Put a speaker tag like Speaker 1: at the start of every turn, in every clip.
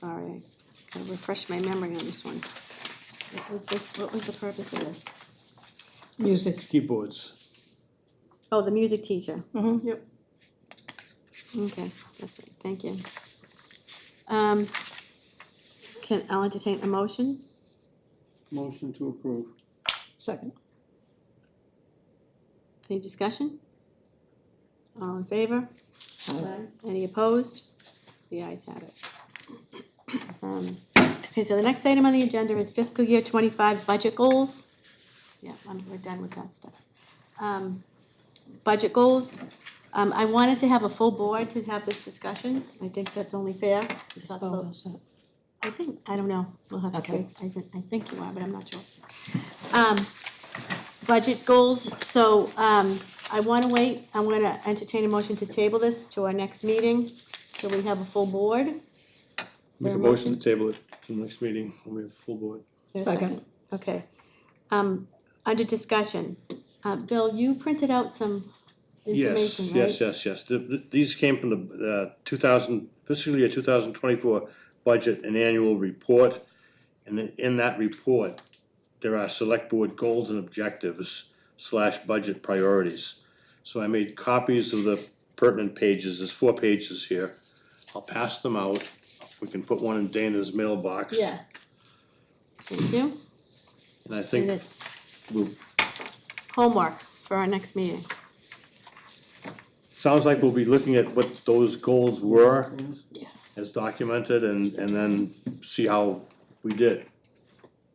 Speaker 1: sorry, I gotta refresh my memory on this one. What was this, what was the purpose of this?
Speaker 2: Music.
Speaker 3: keyboards.
Speaker 1: Oh, the music teacher,
Speaker 2: Mm-hmm, yep.
Speaker 1: okay, that's right, thank you. Um, can, I'll entertain a motion,
Speaker 3: Motion to approve.
Speaker 2: Second.
Speaker 1: any discussion? All in favor?
Speaker 2: Aye.
Speaker 1: Any opposed? The ayes have it. Um, Okay, so the next item on the agenda is fiscal year twenty-five budget goals. Yeah, I'm, we're done with that stuff. Um, Budget goals, um, I wanted to have a full board to have this discussion, I think that's only fair. It's not
Speaker 2: Well,
Speaker 1: the-
Speaker 2: that's it.
Speaker 1: I think, I don't know, we'll have to see,
Speaker 2: Okay.
Speaker 1: I think, I think you are, but I'm not sure. Um, budget goals, so, um, I wanna wait, I'm gonna entertain a motion to table this to our next meeting, till we have a full board. Is there
Speaker 3: Make a motion to table it to the next meeting, when we have full board.
Speaker 1: Is there a
Speaker 2: Second.
Speaker 1: Okay, um, under discussion, uh, Bill, you printed out some
Speaker 3: Yes,
Speaker 1: information, right?
Speaker 3: yes, yes, yes. The- the- These came from the uh, 2000, fiscal year 2024 budget and annual report. And then in that report, there are select board goals and objectives slash budget priorities. So I made copies of the pertinent pages. There's four pages here. I'll pass them out. We can put one in Dana's mailbox.
Speaker 1: Yeah. Thank you,
Speaker 3: And I
Speaker 1: and
Speaker 3: think
Speaker 1: it's
Speaker 3: we'll
Speaker 1: homework for our next meeting.
Speaker 3: sounds like we'll be looking at what those goals were
Speaker 1: Yeah.
Speaker 3: as documented and, and then see how we did.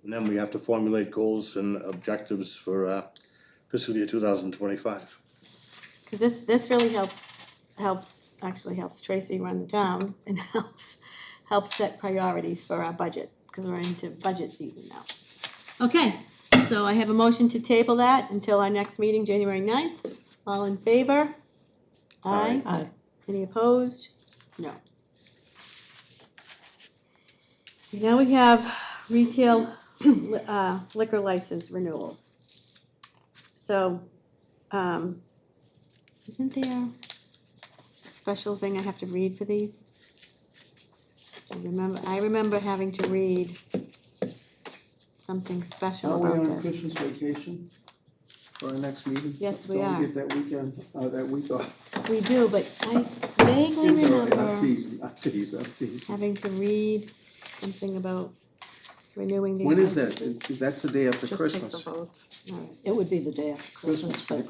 Speaker 3: And then we have to formulate goals and objectives for uh, fiscal year two thousand twenty-five.
Speaker 1: Cause this, this really helps, helps, actually helps Tracy run the town and helps, helps set priorities for our budget, cause we're into budget season now. Okay, so I have a motion to table that until our next meeting, January 9th. All in favor? Aye.
Speaker 2: Aye.
Speaker 1: Any opposed? No. Now we have retail li- uh, liquor license renewals. So, um, isn't there a special thing I have to read for these? I remember, I remember having to read something
Speaker 4: Are
Speaker 1: special
Speaker 4: we on
Speaker 1: about this.
Speaker 4: Christmas vacation for our next meeting?
Speaker 1: Yes, we
Speaker 4: Don't
Speaker 1: are.
Speaker 4: we get that weekend, uh, that week off?
Speaker 1: We do, but I vaguely
Speaker 4: It's all right, I'm
Speaker 1: remember
Speaker 4: teasing, I'm teasing, I'm teasing.
Speaker 1: having to read something about renewing these.
Speaker 4: When is that?
Speaker 1: licenses.
Speaker 4: That's the day after
Speaker 5: Just take the
Speaker 4: Christmas.
Speaker 5: votes.
Speaker 1: All right.
Speaker 2: It would be the day after Christmas, but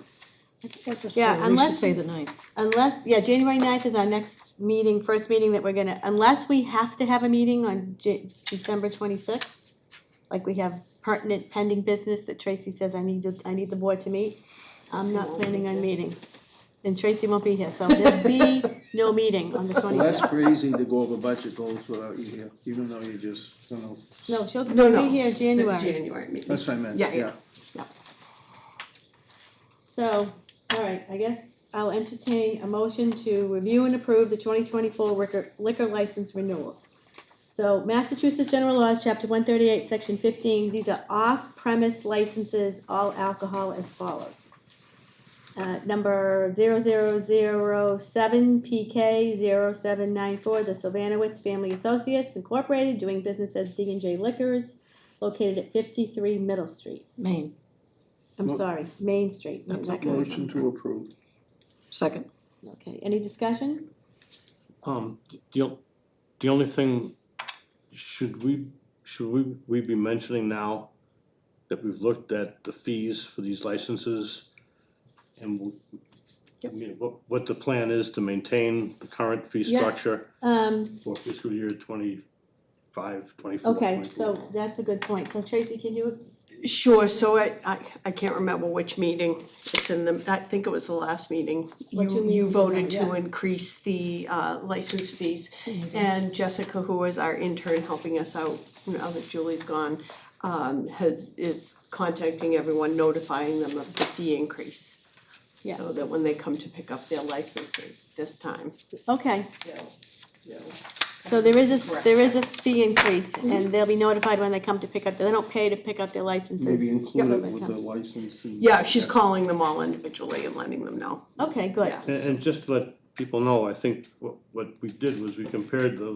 Speaker 2: I think I just
Speaker 1: Yeah,
Speaker 2: said, we should
Speaker 1: unless-
Speaker 2: say the ninth.
Speaker 1: Unless, yeah, January 9th is our next meeting, first meeting that we're gonna, unless we have to have a meeting on Ja- December twenty-sixth. Like we have pertinent pending business that Tracy says I need to, I need the board to meet. I'm not planning on meeting. And Tracy won't be here, so there'll be no meeting on the
Speaker 4: Well, that's
Speaker 1: twenty-sixth.
Speaker 4: crazy to go over budget goals without you here, even though you just, you know,
Speaker 1: No, she'll
Speaker 5: No, no.
Speaker 1: be here in January.
Speaker 5: The January meeting.
Speaker 4: that's what I meant,
Speaker 5: Yeah, yeah.
Speaker 4: yeah.
Speaker 1: So, all right, I guess I'll entertain a motion to review and approve the twenty twenty-four liquor, liquor license renewals. So Massachusetts General Laws, Chapter one thirty-eight, Section fifteen, these are off-premise licenses, all alcohol as follows. Uh, number zero zero zero seven PK 794 the Sylvanowitz Family Associates Incorporated, doing business as D and J Liquors, located at fifty-three Middle Street.
Speaker 2: Maine.
Speaker 1: I'm
Speaker 4: Mo-
Speaker 1: sorry, Main Street.
Speaker 2: That's
Speaker 1: not Main.
Speaker 4: Motion to approve.
Speaker 2: Second.
Speaker 1: Okay, any discussion?
Speaker 3: Um, the, o- the only thing, should we, should we, we be mentioning now that we've looked at the fees for these licenses? And w- I mean, what, what the plan is to maintain the current fee
Speaker 1: Yeah.
Speaker 3: structure?
Speaker 1: Um,
Speaker 3: for fiscal year twenty-five, twenty-four.
Speaker 1: okay,
Speaker 3: 24.
Speaker 1: so that's a good point. So Tracy, can you,
Speaker 5: Sure, so I, I, I can't remember which meeting, it's in the, I think it was the last meeting.
Speaker 1: What you
Speaker 5: You,
Speaker 1: mean,
Speaker 5: you voted to
Speaker 1: yeah.
Speaker 5: increase the, uh, license fees. And Jessica, who was our intern helping us out, now that Julie's gone, um, has, is contacting everyone, notifying them of the fee increase.
Speaker 1: Yeah.
Speaker 5: So that when they come to pick up their licenses this time,
Speaker 1: okay,
Speaker 5: they'll, they'll.
Speaker 1: so there is a, s-
Speaker 5: Correct.
Speaker 1: there is a fee increase
Speaker 4: Mm-hmm.
Speaker 1: and they'll be notified when they come to pick up, they don't pay to pick up their licenses.
Speaker 4: Maybe include
Speaker 1: when
Speaker 4: it
Speaker 1: they
Speaker 4: with the
Speaker 1: come.
Speaker 4: license and.
Speaker 5: Yeah, she's calling them all individually and letting them know.
Speaker 1: Okay, good.
Speaker 5: Yeah.
Speaker 3: And, and just to let people know, I think what, what we did was we compared the